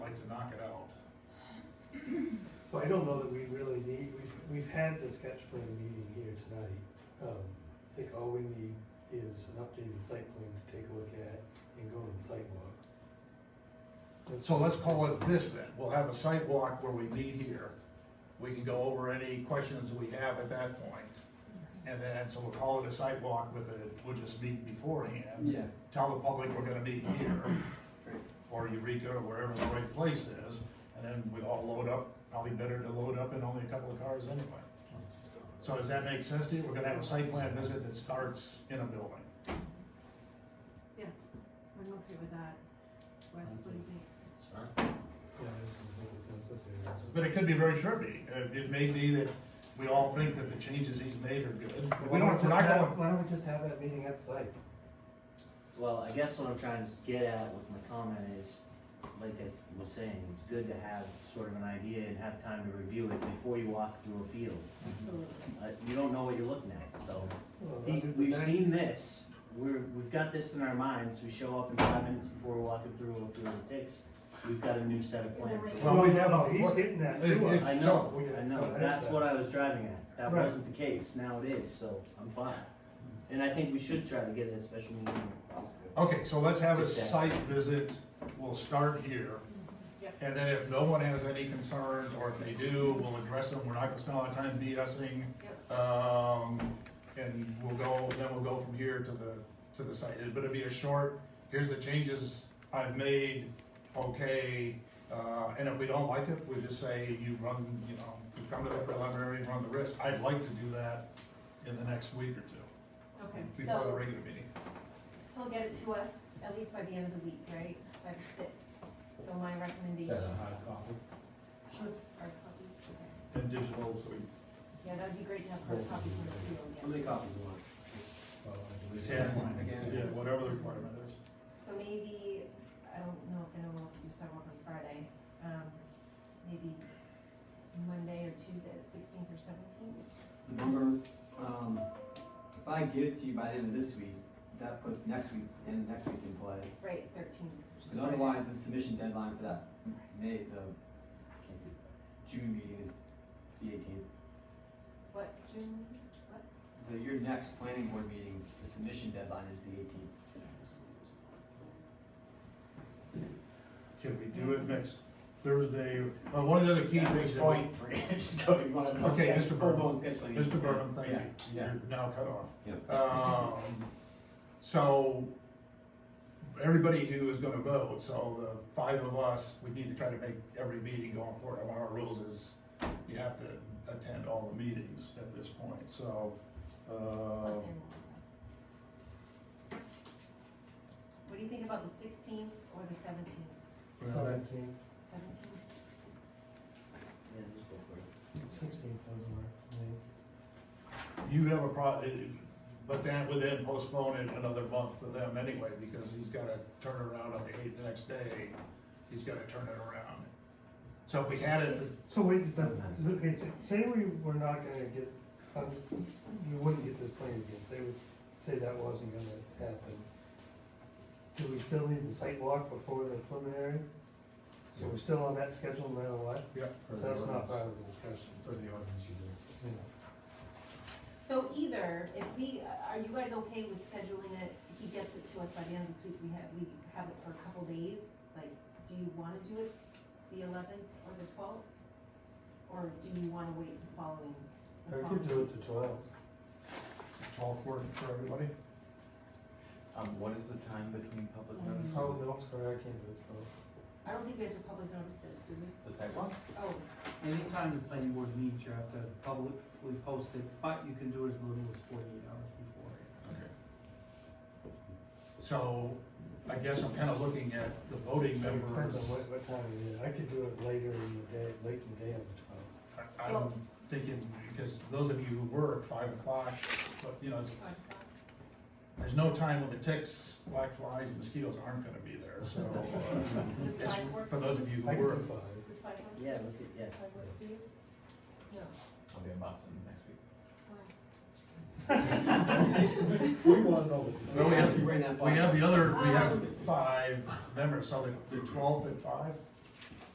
I don't know that we really need, we've, we've had the sketch plan meeting here tonight. Um, I think all we need is an updated site plan to take a look at and go to the site walk. So let's call it this then, we'll have a sidewalk where we meet here, we can go over any questions we have at that point. And then, so we'll call it a sidewalk with a, we'll just meet beforehand. Yeah. Tell the public we're gonna meet here, Right. or Eureka, or wherever the right place is, and then we all load up, probably better to load up in only a couple of cars anyway. So does that make sense to you? We're gonna have a site plan visit that starts in a building. I'm okay with that. Wes, what do you think? Yeah, I just don't think it's necessary. But it could be a very short meeting. Uh, It may be that we all think that the changes he's made are good. We don't, we're not going, Why don't we just have that meeting at the site? Well, I guess what I'm trying to get at with my comment is, like I was saying, it's good to have sort of an idea and have time to review it before you walk through a field. Absolutely. Uh, you don't know what you're looking at, so. Well, The- under the We've back- seen this, we're, we've got this in our minds, we show up in five minutes before we're walking through a field of ticks, we've got a new set of plans. Well, No, we have no, a- He's hitting that It- too. it's- I know, We- I well, know, that's that's that. what I was driving at, that Right. wasn't the case, now it is, so I'm fine. And I think we should try to get a special meeting. if possible. okay, so let's have a Just that. site visit. We'll start here. Yep. And then if no one has any concerns, or if they do, we'll address them. We're not gonna spend a lot of time BSing. Um, and we'll go, then we'll go from here to the, to the site. But it'll be a short, here's the changes I've made, okay. Uh, and if we don't like it, we just say, you run, you know, you come to the preliminary, run the risk. I'd like to do that in the next week or two, Okay. before the So regular meeting. he'll get it to us at least by the end of the week, right? By the sixth. So my recommendation. Sure. Hard copies, okay. And digital, so Yeah, that'd be great to have hard copies on the table How again. many copies you want? we, ten lines, yeah, whatever the requirement is. So maybe, I don't know if anyone wants to do sidewalk on Friday, um, maybe Monday or Tuesday, the sixteenth or seventeenth? Number, um, if I give it to you by the end of this week, that puts next week, and next week in play. Right, thirteenth. Because otherwise, the submission deadline for that May, the Can't do June meeting is the eighteenth. What, June, what? The, your next planning board meeting, the submission deadline is the eighteenth. Can we do it next Thursday? Uh, one of the other key things that we, Just go, you wanna. Okay, Mr. Berman. Full-blown sketch plan. Mr. Burnham, thank you. Yeah, You're now cut off. yeah. Um, so, everybody who is gonna vote, so the five of us, we need to try to make every meeting going forward. One of our rules is you have to attend all the meetings at this point, so, uh, Plus annual. What do you think about the sixteenth or the seventeenth? Seventeen, Seventeenth? Yeah, just go for it. sixteen doesn't work. I mean, you have a pro, uh, but that would then postpone it another month for them anyway, because he's gotta turn around on the eighth the next day. He's gotta turn it around. So if we had it, So wait, but, okay, so say we were not gonna get, um, we wouldn't get this plan again, say, we- say that wasn't gonna happen. Do we still need the site walk before the preliminary? So we're still on that schedule no matter what? yeah, So that's not part of the discussion. For the ordinance you do. Yeah. So either, if we, are you guys okay with scheduling it, he gets it to us by the end of this week, we have, we have it for a couple days? Like, do you wanna do it the eleventh or the twelfth? Or do you wanna wait the following? the Or we could following- do it to twelve. twelfth work for everybody. Um, what is the time between public Mm. notices? Oh, no, I'm sorry, I can't do it twelve. I don't think we have to public notice this, do we? The sidewalk? Oh, Anytime the planning board meets, you have to publicly post it, but you can do it as little as forty-eight hours before. Okay. So, I guess I'm kinda looking at the voting members. Depends on what, what time it is, I could do it later in the day, late in the day on the twelve. I- I'm thinking, because those of you who work five o'clock, but, you know, it's- five o'clock. there's no time when the ticks, black flies, and mosquitoes aren't gonna be there, so. uh, Does it's five work? For those of you I who could work. do five. Does five work? Yeah, look at, yeah. Does five work for you? No. I'll be in Boston next week. Why? We wanna know. Well, we have- You ran that We by. have the other, we have five members, so the- the twelfth at five?